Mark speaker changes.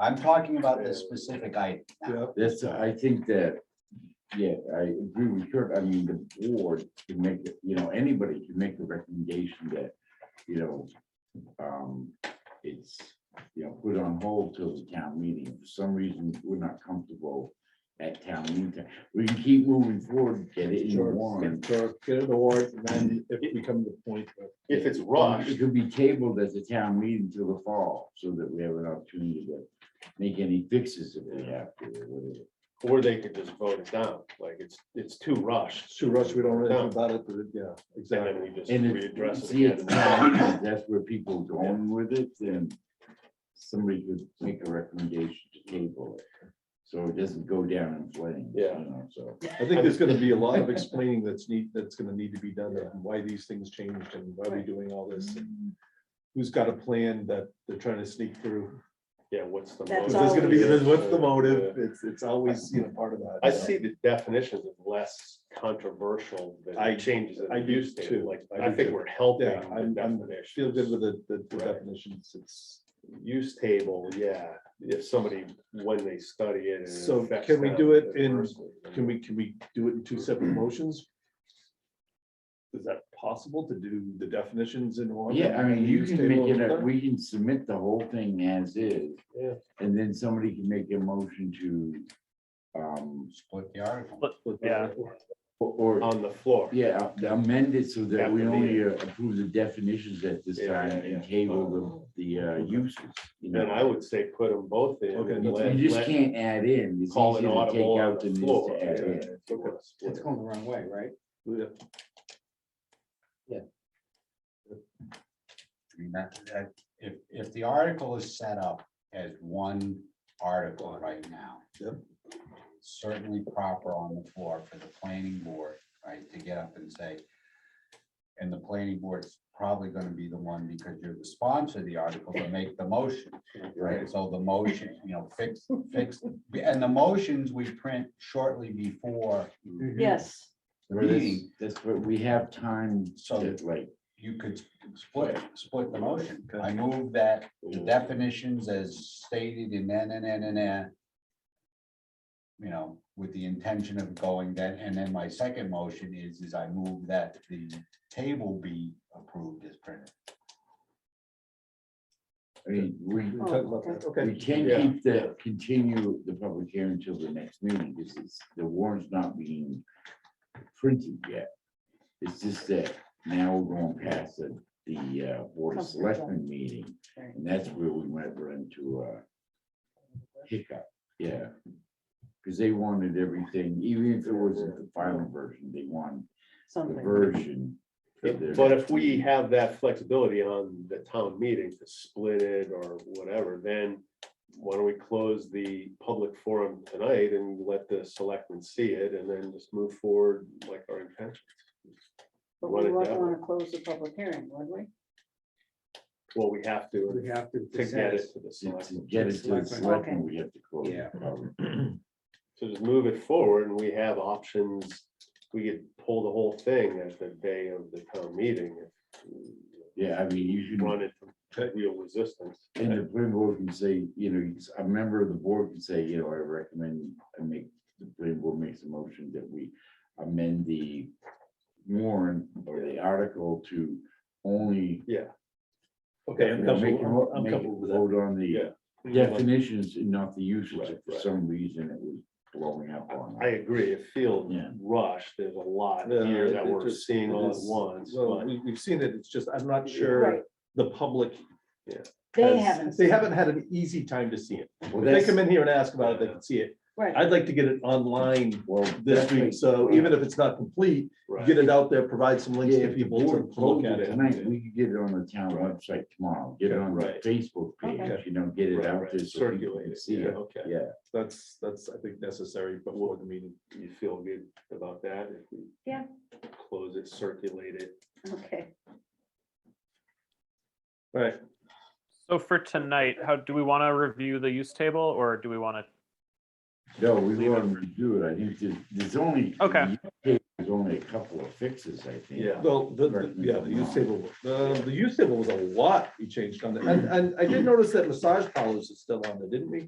Speaker 1: I'm talking about the specific item.
Speaker 2: Yeah,
Speaker 3: That's, I think that, yeah, I agree with Kurt. I mean, the board can make, it. you know, anybody can make the recommendation that, you know, um, it's, you know, put on hold till the town meeting. For some reason, we're not comfortable at town meeting. We can keep moving forward, get it in
Speaker 2: Sure.
Speaker 3: warrant.
Speaker 2: So get it award, and then if we come to the point, of-
Speaker 4: If it's
Speaker 3: It
Speaker 4: rushed,
Speaker 3: could be tabled at the town meeting till the fall, so that we have an opportunity to make any fixes if we have to, or whatever.
Speaker 4: or they could just vote it down, like it's, it's too rushed.
Speaker 2: Sue Rush, we don't really know about it, but it- yeah,
Speaker 4: And
Speaker 2: exactly.
Speaker 4: then we just
Speaker 3: And
Speaker 4: readdress
Speaker 3: it's,
Speaker 4: it
Speaker 3: see, it's,
Speaker 4: again.
Speaker 3: not- that's where people going with it, then somebody could make a recommendation to table it. So it doesn't go down in flames. you
Speaker 4: Yeah.
Speaker 3: know, So,
Speaker 2: I think there's gonna be a lot of explaining that's need, that's gonna need to be done, and why these things changed, and why we're doing all this.
Speaker 5: Mm-hmm.
Speaker 2: and Who's got a plan that they're trying to sneak through,
Speaker 4: Yeah, what's the?
Speaker 5: That's
Speaker 2: If
Speaker 4: motive?
Speaker 2: there's gonna be,
Speaker 5: always-
Speaker 2: then what's the motive,
Speaker 4: Yeah.
Speaker 2: it's, it's always, you know, part of that.
Speaker 4: I
Speaker 2: so.
Speaker 4: see the definitions as less controversial than
Speaker 2: I-
Speaker 4: the changes that
Speaker 2: I
Speaker 4: I
Speaker 2: do
Speaker 4: used to,
Speaker 2: too.
Speaker 4: like,
Speaker 2: I
Speaker 4: I
Speaker 2: do
Speaker 4: think
Speaker 2: too.
Speaker 4: we're helping
Speaker 2: Yeah,
Speaker 4: the
Speaker 2: I'm, I'm, feel good
Speaker 4: definition.
Speaker 2: with the, the the
Speaker 4: Right.
Speaker 2: definitions, it's,
Speaker 4: Use table, yeah, if somebody, when they study it. and it
Speaker 2: So
Speaker 4: affects
Speaker 2: can we
Speaker 4: them
Speaker 2: do it in-
Speaker 4: adversely, then
Speaker 2: can we, can we do it in two separate motions? Is that possible to do the definitions in one?
Speaker 3: yeah, I mean, you
Speaker 2: Use
Speaker 3: can
Speaker 2: table
Speaker 3: make it, a-
Speaker 2: another?
Speaker 3: we can submit the whole thing as is.
Speaker 4: Yeah.
Speaker 3: And then somebody can make a motion to, um,
Speaker 1: Split the article.
Speaker 2: With the-
Speaker 6: Yeah.
Speaker 3: or, or,
Speaker 4: On the floor.
Speaker 3: yeah, amend it so that we
Speaker 4: After the-
Speaker 3: only uh, approve the definitions at this
Speaker 4: Yeah,
Speaker 3: time
Speaker 4: yeah,
Speaker 3: and
Speaker 4: yeah.
Speaker 3: table the, the uh, uses. you know.
Speaker 4: Then I would say put them both in.
Speaker 2: Okay,
Speaker 4: and
Speaker 2: that's-
Speaker 4: let-
Speaker 3: You just
Speaker 4: let-
Speaker 3: can't add in. It's
Speaker 4: Call it
Speaker 3: easier to
Speaker 4: audible
Speaker 3: take
Speaker 4: on
Speaker 3: out
Speaker 4: the
Speaker 3: than it is
Speaker 4: floor.
Speaker 3: to add in.
Speaker 1: It's going the wrong way, right?
Speaker 2: Yeah.
Speaker 1: I mean, that, that, if, if the article is set up as one article right now.
Speaker 2: Yep.
Speaker 1: Certainly proper on the floor for the planning board, right, to get up and say. And the planning board's probably gonna be the one, because you're the sponsor of the article, to make the motion.
Speaker 3: Right.
Speaker 1: So the motion, you know, fix, fix, and the motions we print shortly before
Speaker 5: Yes,
Speaker 1: the
Speaker 3: Where this-
Speaker 1: meeting.
Speaker 3: That's where we have time
Speaker 1: So-
Speaker 3: to like,
Speaker 1: You could split, split the motion.
Speaker 2: Okay.
Speaker 1: I move that the
Speaker 4: Yeah.
Speaker 1: definitions as stated in then and then and then. You know, with the intention of going then, and then my second motion is, is I move that the table be approved as printed.
Speaker 3: I mean, we,
Speaker 2: We're talking about that, Okay.
Speaker 3: we can
Speaker 4: Yeah.
Speaker 3: keep the, continue the public hearing until the next meeting. This is, the warrant's not being printed yet. It's just that now we're going past the, the uh, Board of
Speaker 5: Conference, yeah.
Speaker 3: Selectmen meeting.
Speaker 5: Right.
Speaker 3: And that's where we might run into a hiccup, yeah. Because they wanted everything, even if it wasn't the final version, they wanted the
Speaker 5: something.
Speaker 3: version. of their-
Speaker 4: But if we have that flexibility on the town meeting to split it or whatever, then why don't we close the public forum tonight and let the selectmen see it and then just move forward like our intention?
Speaker 5: But
Speaker 4: Run
Speaker 5: we
Speaker 4: it
Speaker 5: wouldn't
Speaker 4: down.
Speaker 5: want to close the public hearing, would we?
Speaker 4: Well, we have to,
Speaker 6: We have to.
Speaker 4: to get
Speaker 6: decide.
Speaker 4: it to
Speaker 3: To
Speaker 4: the
Speaker 3: to
Speaker 4: selectmen.
Speaker 3: get it to the
Speaker 5: Okay.
Speaker 3: selectmen, we have to close.
Speaker 1: Yeah.
Speaker 3: the public.
Speaker 4: So just move it forward and we have options. We could pull the whole thing at the day of the town meeting.
Speaker 3: Yeah, I mean, you
Speaker 4: if Run
Speaker 3: can,
Speaker 4: it to real resistance.
Speaker 3: and the planning board can say, you know, you s- a member of the board can say, you know, I recommend, I make, the planning board makes a motion that we amend the warrant or the article to only
Speaker 4: Yeah.
Speaker 2: Okay, I'm
Speaker 3: you know, make a
Speaker 2: comfortable,
Speaker 3: mo-
Speaker 2: I'm- I'm
Speaker 3: make a
Speaker 2: comfortable with that.
Speaker 3: Vote on the.
Speaker 4: Yeah.
Speaker 3: definitions and not the uses, if for
Speaker 4: Right, right.
Speaker 3: some reason it was blowing up on.
Speaker 4: I
Speaker 3: us.
Speaker 4: agree, it feels
Speaker 3: Yeah.
Speaker 4: rushed, there's a lot
Speaker 2: No,
Speaker 4: here
Speaker 2: it-
Speaker 4: that
Speaker 2: it
Speaker 4: we're
Speaker 2: just-
Speaker 4: seeing
Speaker 2: it
Speaker 4: all at
Speaker 2: is-
Speaker 4: once,
Speaker 2: Well,
Speaker 4: but
Speaker 2: we, we've seen it, it's just, I'm not
Speaker 5: Right.
Speaker 2: sure the public.
Speaker 5: They
Speaker 2: has-
Speaker 5: haven't.
Speaker 2: They
Speaker 5: seen it.
Speaker 2: haven't had an easy time to see it.
Speaker 3: Well,
Speaker 2: If they
Speaker 3: that's,
Speaker 2: come in here and ask about it, they can see it.
Speaker 5: Right,
Speaker 2: I'd like to get it online
Speaker 3: well,
Speaker 2: this
Speaker 3: that's
Speaker 2: week, so even if it's not complete,
Speaker 4: right,
Speaker 2: get it out there, provide some
Speaker 3: what-
Speaker 2: links
Speaker 3: yeah,
Speaker 2: to
Speaker 3: if the
Speaker 2: people to
Speaker 3: board
Speaker 2: to look
Speaker 3: closed
Speaker 2: at
Speaker 3: it
Speaker 2: it.
Speaker 3: Tonight, we could get it on the town
Speaker 2: Right.
Speaker 3: website tomorrow, get it on the
Speaker 2: Right.
Speaker 3: Facebook
Speaker 5: Okay.
Speaker 3: page, you know, get it
Speaker 4: Right,
Speaker 3: out
Speaker 4: right,
Speaker 3: there. so people
Speaker 4: circulate
Speaker 3: can
Speaker 4: it,
Speaker 3: See
Speaker 4: yeah,
Speaker 3: it,
Speaker 4: okay.
Speaker 3: yeah.
Speaker 2: That's, that's, I think, necessary before the meeting.
Speaker 4: you feel good about that? if we
Speaker 5: Yeah.
Speaker 4: Close it, circulate it,
Speaker 5: okay.
Speaker 2: All right,
Speaker 6: So for tonight, how, do we want to review the use table or do we want to
Speaker 3: No, we want to do it. I think there's, there's only.
Speaker 6: Okay.
Speaker 3: There's only a couple of fixes, I think.
Speaker 4: Yeah.
Speaker 2: Well, the, the- yeah, the use table, the, the use table was a lot we changed on that, and, and I did notice that massage parlors is still on there, didn't we?